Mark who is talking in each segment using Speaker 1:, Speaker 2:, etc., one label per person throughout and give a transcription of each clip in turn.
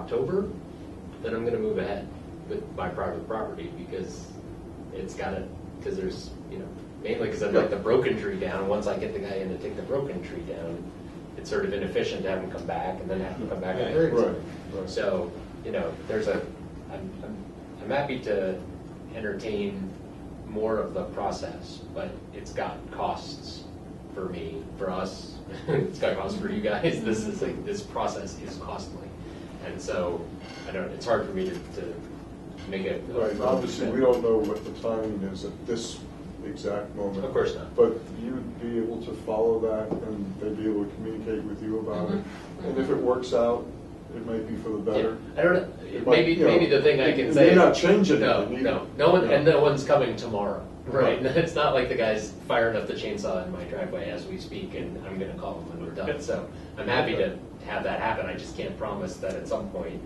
Speaker 1: October, then I'm gonna move ahead with my private property because it's gotta, because there's, you know, mainly because I've got the broken tree down. Once I get the guy in to take the broken tree down, it's sort of inefficient to have him come back and then have him come back and
Speaker 2: Right,
Speaker 1: hurt
Speaker 2: right,
Speaker 1: it.
Speaker 2: right.
Speaker 1: So, you know, there's a, I'm, I'm, I'm happy to entertain more of the process, but it's got costs for me, for us. It's got costs for you guys. This is like, this process is costly. And so, I don't, it's hard for me to, to make it.
Speaker 2: Right, obviously, we don't know what the timing is at this exact moment.
Speaker 1: Of course not.
Speaker 2: But you'd be able to follow that, and they'd be able to communicate with you about it.
Speaker 1: Mhm.
Speaker 2: And if it works out, it might be for
Speaker 1: Yeah,
Speaker 2: the better.
Speaker 1: I don't, know.
Speaker 2: But,
Speaker 1: maybe,
Speaker 2: you know,
Speaker 1: maybe the thing I
Speaker 2: it-
Speaker 1: can
Speaker 2: it
Speaker 1: say.
Speaker 2: may
Speaker 1: is-
Speaker 2: not change
Speaker 1: No,
Speaker 2: anything.
Speaker 1: no, no one, and
Speaker 2: Yeah.
Speaker 1: no one's coming tomorrow, right?
Speaker 2: Right.
Speaker 1: It's not like the guy's firing up the chainsaw in my driveway as we speak and I'm gonna call him when we're done. So I'm happy to have that happen, I just can't promise that at some point,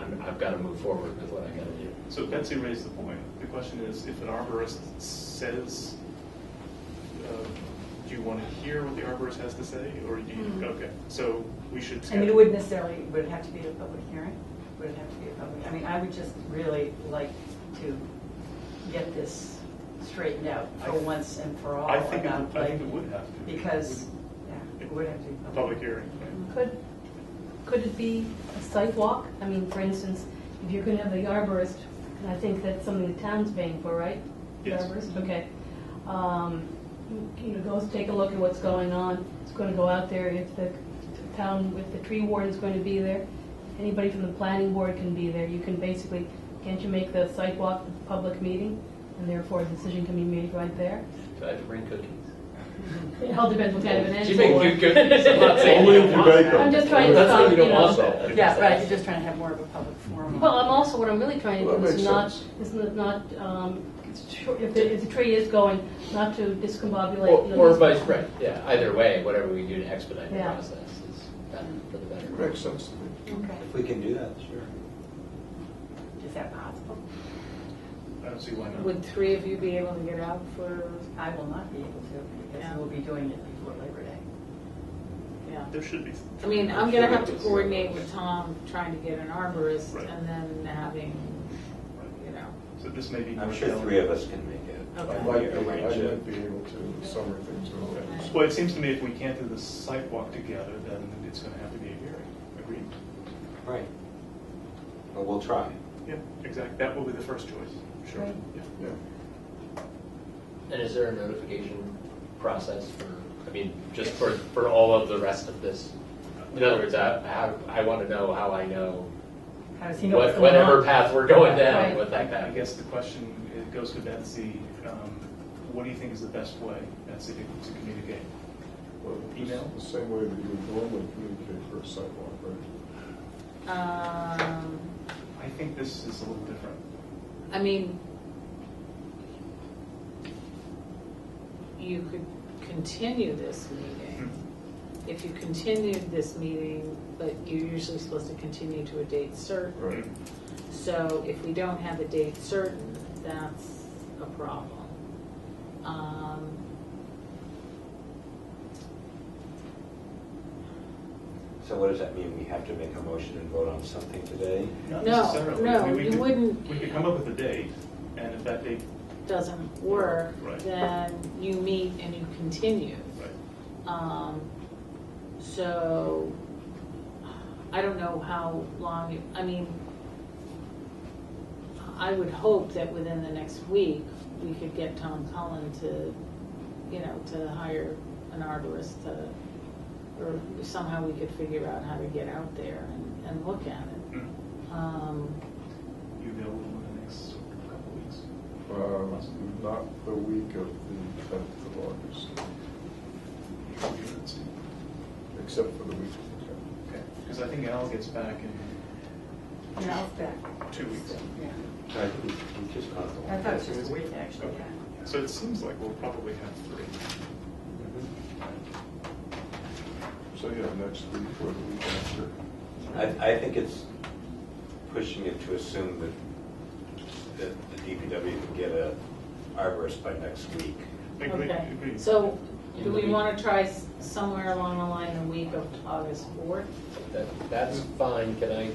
Speaker 1: I'm, I've gotta move forward with what I gotta do.
Speaker 3: So Betsy raised the point. The question is, if an arborist says, uh, do you want to hear what the arborist has to say, or do
Speaker 4: Mhm.
Speaker 3: you, okay, so we should.
Speaker 4: I mean,
Speaker 3: schedule-
Speaker 4: it wouldn't necessarily, would it have to be a public hearing? Would it have to be a public, I mean, I would just really like to get this straightened out for
Speaker 3: I-
Speaker 4: once and for all.
Speaker 3: I think, it- I
Speaker 4: about,
Speaker 3: think
Speaker 4: like,
Speaker 3: it would have to.
Speaker 4: Because, yeah, it would have to be.
Speaker 3: A public hearing, right?
Speaker 5: Could, could it be a site walk? I mean, for instance, if you're gonna have the arborist, and I think that's something the town's paying for, right? The
Speaker 3: Yes.
Speaker 5: arborist, okay. Um, You know, goes take a look at what's going on, it's gonna go out there, if the town, if the tree warden's going to be there, anybody from the planning board can be there, you can basically, can't you make the site walk a public meeting? And therefore, a decision can be made right there?
Speaker 1: Do I have to bring cookies?
Speaker 5: It all depends what kind of an
Speaker 1: Do you
Speaker 5: answer.
Speaker 1: make cute cookies? I'm not saying
Speaker 2: Only
Speaker 1: you
Speaker 2: if
Speaker 1: don't
Speaker 2: you
Speaker 1: want
Speaker 2: bake
Speaker 1: that.
Speaker 2: them.
Speaker 5: I'm just trying to
Speaker 1: That's
Speaker 5: stop,
Speaker 1: what you don't
Speaker 5: you know.
Speaker 1: want that.
Speaker 4: Yeah, right, you're just trying to have more of a public forum.
Speaker 5: Well, I'm also, what I'm really trying to
Speaker 2: Well,
Speaker 5: do
Speaker 2: that
Speaker 5: is
Speaker 2: makes
Speaker 5: not,
Speaker 2: sense.
Speaker 5: is not, um, if the, if the tree is going, not to discombobulate. you
Speaker 1: Or
Speaker 5: know,
Speaker 1: or
Speaker 5: these-
Speaker 1: vice versa, yeah, either way, whatever we do to expedite the
Speaker 5: Yeah.
Speaker 1: process is better for the better.
Speaker 2: It Makes sense to me.
Speaker 4: Okay,
Speaker 6: If we can do that, sure.
Speaker 4: is that possible?
Speaker 3: I don't see why not.
Speaker 7: Would three of you be able to get out for,
Speaker 4: I will not be able to, because
Speaker 7: Yeah.
Speaker 4: we'll be doing it before Labor Day.
Speaker 7: yeah?
Speaker 3: There should be.
Speaker 7: I mean, I'm gonna have to coordinate with Tom, trying to get an arborist
Speaker 3: Right.
Speaker 7: and then having, you know,
Speaker 3: So this may be.
Speaker 6: I'm sure three of us can make it.
Speaker 7: Okay.
Speaker 2: I
Speaker 6: Like,
Speaker 2: might be, I
Speaker 6: arrange
Speaker 2: might
Speaker 6: it.
Speaker 2: be able to summer things around.
Speaker 3: Well, it seems to me if we can't do the sidewalk together, then it's going to have to be a hearing, agreed?
Speaker 6: Right. But we'll try.
Speaker 3: Yeah, exactly, that will be the first choice, sure.
Speaker 5: Right.
Speaker 3: Yeah.
Speaker 2: Yeah.
Speaker 1: And is there a notification process for, I mean, just for, for all of the rest of this? In other words, I, how- I want to know how I know
Speaker 4: How does he know what's
Speaker 1: what-
Speaker 4: going on?
Speaker 1: whatever path we're going down
Speaker 5: Right.
Speaker 1: with that
Speaker 3: I I
Speaker 1: path.
Speaker 3: guess the question it goes to Betsy, um, what do you think is the best way, Betsy, to to communicate?
Speaker 2: Well, it's
Speaker 3: Email?
Speaker 2: The same way that you would normally communicate for a sidewalk, right?
Speaker 7: um,
Speaker 3: I think this is a little different.
Speaker 7: I mean, you could continue this meeting. If you continued this meeting, but you're usually supposed to continue to a date certain.
Speaker 2: Right.
Speaker 7: So if we don't have a date certain, that's a problem. Um,
Speaker 6: So what does that mean? We have to make a motion and vote on something today?
Speaker 3: Not
Speaker 7: No,
Speaker 3: necessarily. I
Speaker 7: no,
Speaker 3: mean, we
Speaker 7: you
Speaker 3: could-
Speaker 7: wouldn't.
Speaker 3: We could come up with a date, and if that date,
Speaker 7: Doesn't work,
Speaker 3: Right.
Speaker 7: then you meet and you continue.
Speaker 3: right,
Speaker 7: Um, So, I don't know how long, it- I mean, I would hope that within the next week, we could get Tom Cullen to, you know, to hire an arborist to, or somehow we could figure out how to get out there and, and look at it.
Speaker 3: Mm.
Speaker 7: Um,
Speaker 3: you available in the next couple of weeks?
Speaker 2: Um, Not the week of the 10th of August, except for the week of the 10th.
Speaker 3: Because I think Al gets back in
Speaker 4: Yeah, it's back.
Speaker 3: two weeks.
Speaker 4: Yeah.
Speaker 6: I think we just caught the
Speaker 4: I
Speaker 6: one.
Speaker 4: thought it was just a week, actually, yeah.
Speaker 3: So it seems like we'll probably have three.
Speaker 6: Mm-hmm.
Speaker 2: So, yeah, next week or the week after.
Speaker 6: I, I think it's pushing it to assume that, that the DPW can get a arborist by next week.
Speaker 3: Agree,
Speaker 7: Okay,
Speaker 3: agree.
Speaker 7: so do
Speaker 1: In the
Speaker 7: we
Speaker 1: week.
Speaker 7: want to try s- somewhere along the line the week of August 4th?
Speaker 1: That- That's fine, can I